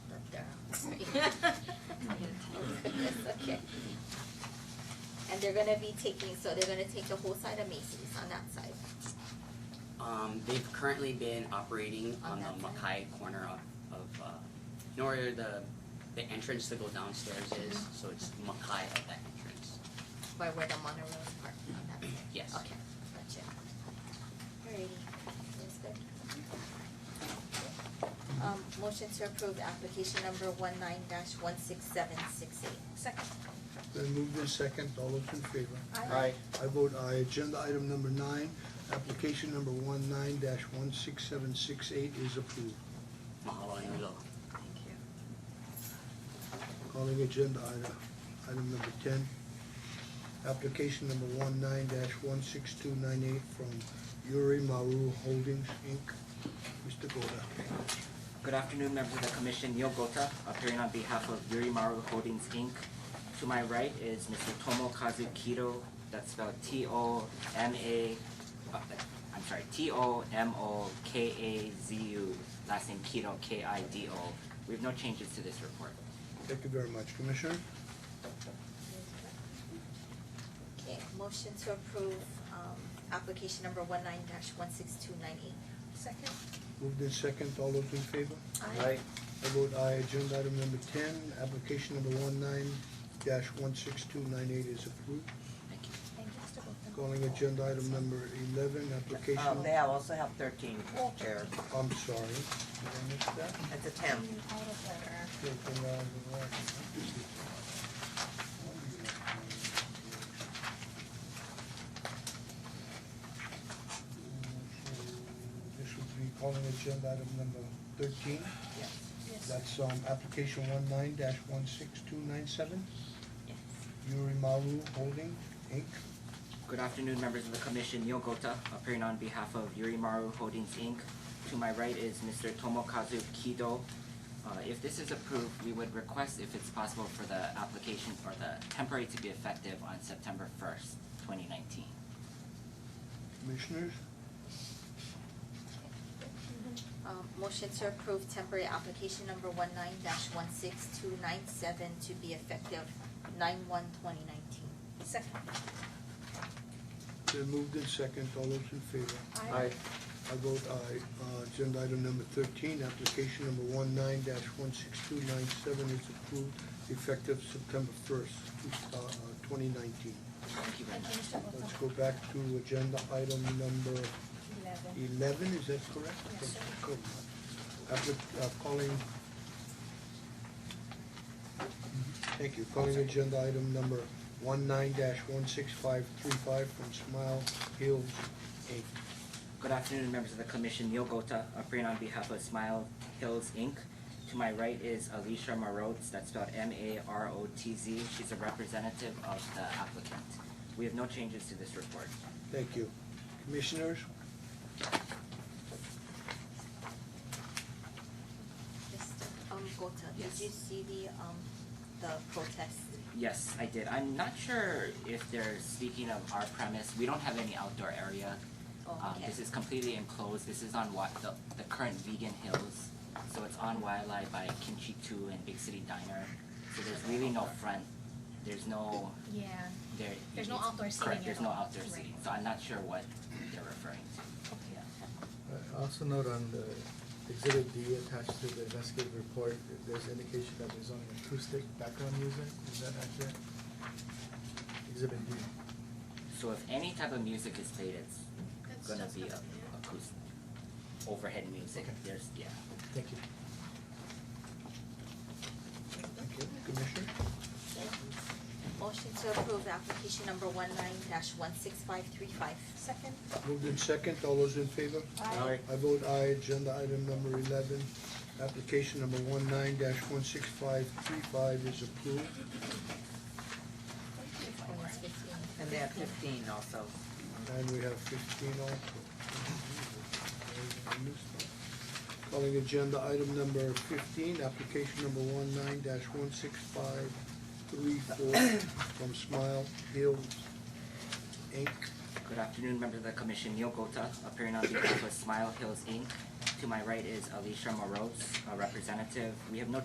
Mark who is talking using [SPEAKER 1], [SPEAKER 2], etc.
[SPEAKER 1] Okay. And they're gonna be taking, so they're gonna take the whole side of Macy's on that side.
[SPEAKER 2] Um, they've currently been operating
[SPEAKER 1] On
[SPEAKER 2] on the
[SPEAKER 1] that
[SPEAKER 2] Mackay corner of, of, uh, you know where the, the entrance to go downstairs is,
[SPEAKER 3] Mm-hmm.
[SPEAKER 2] so it's Mackay at that entrance.
[SPEAKER 1] by where the monorail is parked on that side?
[SPEAKER 2] Yes.
[SPEAKER 1] Okay, gotcha. Alrighty, that's good. Um, motion to approve application number one nine dash one six seven six eight.
[SPEAKER 4] Second.
[SPEAKER 5] Then moved in second, all those in favor?
[SPEAKER 6] Aye.
[SPEAKER 5] I vote aye. Agenda item number nine, application number one nine dash one six seven six eight is approved.
[SPEAKER 2] Mahalo and aloha.
[SPEAKER 4] Thank you.
[SPEAKER 5] Calling agenda item, item number ten, application number one nine dash one six two nine eight from Yuri Maru Holdings, Inc., Mr. Goda.
[SPEAKER 6] Good afternoon, members of the commission. Neil Gota, appearing on behalf of Yurimaru Holdings, Inc. To my right is Mr. Tomokazu Kido, that's spelled T-O-M-A, uh, I'm sorry, T-O-M-O-K-A-Z-U, last name Kido, K-I-D-O. We have no changes to this report.
[SPEAKER 5] Thank you very much, Commissioner.
[SPEAKER 1] Okay, motion to approve, um, application number one nine dash one six two nine eight.
[SPEAKER 4] Second.
[SPEAKER 5] Moved in second, all those in favor?
[SPEAKER 1] Aye.
[SPEAKER 5] I vote aye. Agenda item number ten, application number one nine dash one six two nine eight is approved.
[SPEAKER 2] Thank you.
[SPEAKER 4] Thank you, Mr. Gupta.
[SPEAKER 5] Calling agenda item number eleven,
[SPEAKER 4] Oh,
[SPEAKER 3] Uh, May
[SPEAKER 5] application,
[SPEAKER 3] I also have thirteen, Chair?
[SPEAKER 5] I'm sorry, did I miss that?
[SPEAKER 3] It's a ten.
[SPEAKER 4] Out of order.
[SPEAKER 5] Yes, and, uh, the right. So This would be calling agenda item number thirteen,
[SPEAKER 4] Yes.
[SPEAKER 5] that's, um, application one nine dash one six two nine seven,
[SPEAKER 4] Yes.
[SPEAKER 5] Yurimaru Holding, Inc.
[SPEAKER 6] Good afternoon, members of the commission. Neil Gota, appearing on behalf of Yurimaru Holdings, Inc. To my right is Mr. Tomokazu Kido. Uh, If this is approved, we would request, if it's possible, for the application or the temporary to be effective on September first, twenty nineteen.
[SPEAKER 5] Commissioners,
[SPEAKER 1] Um, motion to approve temporary application number one nine dash one six two nine seven to be effective nine one twenty nineteen.
[SPEAKER 4] Second.
[SPEAKER 5] they moved in second, all those in favor? I vote aye. Uh, Agenda item number thirteen, application number one nine dash one six two nine seven is approved effective September first, uh, twenty nineteen.
[SPEAKER 6] Thank you very
[SPEAKER 4] Thank
[SPEAKER 6] much.
[SPEAKER 4] you, Mr. Gupta.
[SPEAKER 5] Let's go back to agenda item number
[SPEAKER 4] Eleven.
[SPEAKER 5] eleven, is that correct?
[SPEAKER 4] Yes, sir.
[SPEAKER 5] Correct. Appli- uh, calling. Thank you, calling agenda item number one nine dash one six five three five from Smile Hills Inc.
[SPEAKER 6] Good afternoon, members of the commission. Neil Gota, appearing on behalf of Smile Hills Inc. To my right is Alicia Marotz, that's spelled M-A-R-O-T-Z. She's a representative of the applicant. We have no changes to this report.
[SPEAKER 5] Thank you. Commissioners,
[SPEAKER 1] Mr. Um, Gota, did
[SPEAKER 6] Yes.
[SPEAKER 1] you see the, um, the protest?
[SPEAKER 6] Yes, I did. I'm not sure if they're speaking of our premise. We don't have any outdoor area.
[SPEAKER 1] Oh,
[SPEAKER 6] Um,
[SPEAKER 1] okay.
[SPEAKER 6] this is completely enclosed. This is on wa- the, the current Vegan Hills. So it's on Wailea by Kimchi Two and Big City Diner. So there's really no front. There's no
[SPEAKER 4] Yeah.
[SPEAKER 6] there.
[SPEAKER 4] There's no
[SPEAKER 6] it's-
[SPEAKER 4] outdoor seating
[SPEAKER 6] Correct.
[SPEAKER 4] at
[SPEAKER 6] There's no
[SPEAKER 4] all.
[SPEAKER 6] outdoor
[SPEAKER 4] Right.
[SPEAKER 6] seating. So I'm not sure what they're referring to.
[SPEAKER 4] Okay.
[SPEAKER 7] I Also note on the exhibit D attached to the investigative report, that there's indication that there's only acoustic background music, is that accurate? Exhibit D,
[SPEAKER 6] So if any type of music is played, it's
[SPEAKER 4] That's
[SPEAKER 6] gonna
[SPEAKER 4] just
[SPEAKER 6] be
[SPEAKER 4] not-
[SPEAKER 6] a acoustic overhead music.
[SPEAKER 7] Okay.
[SPEAKER 6] There's yeah.
[SPEAKER 7] thank you.
[SPEAKER 5] thank you. Commissioner?
[SPEAKER 1] Motion to approve application number one nine dash one six five three five.
[SPEAKER 4] Second.
[SPEAKER 5] Moved in second, all those in favor?
[SPEAKER 4] Aye.
[SPEAKER 5] I vote aye, agenda item number eleven, application number one nine dash one six five three five is approved.
[SPEAKER 3] And they have fifteen also.
[SPEAKER 5] And we have fifteen also. Calling agenda item number fifteen, application number one nine dash one six five three four from Smile Hills Inc.
[SPEAKER 6] Good afternoon, members of the commission. Neil Gota, appearing on behalf of Smile Hills Inc. To my right is Alicia Moroz, a representative. We have no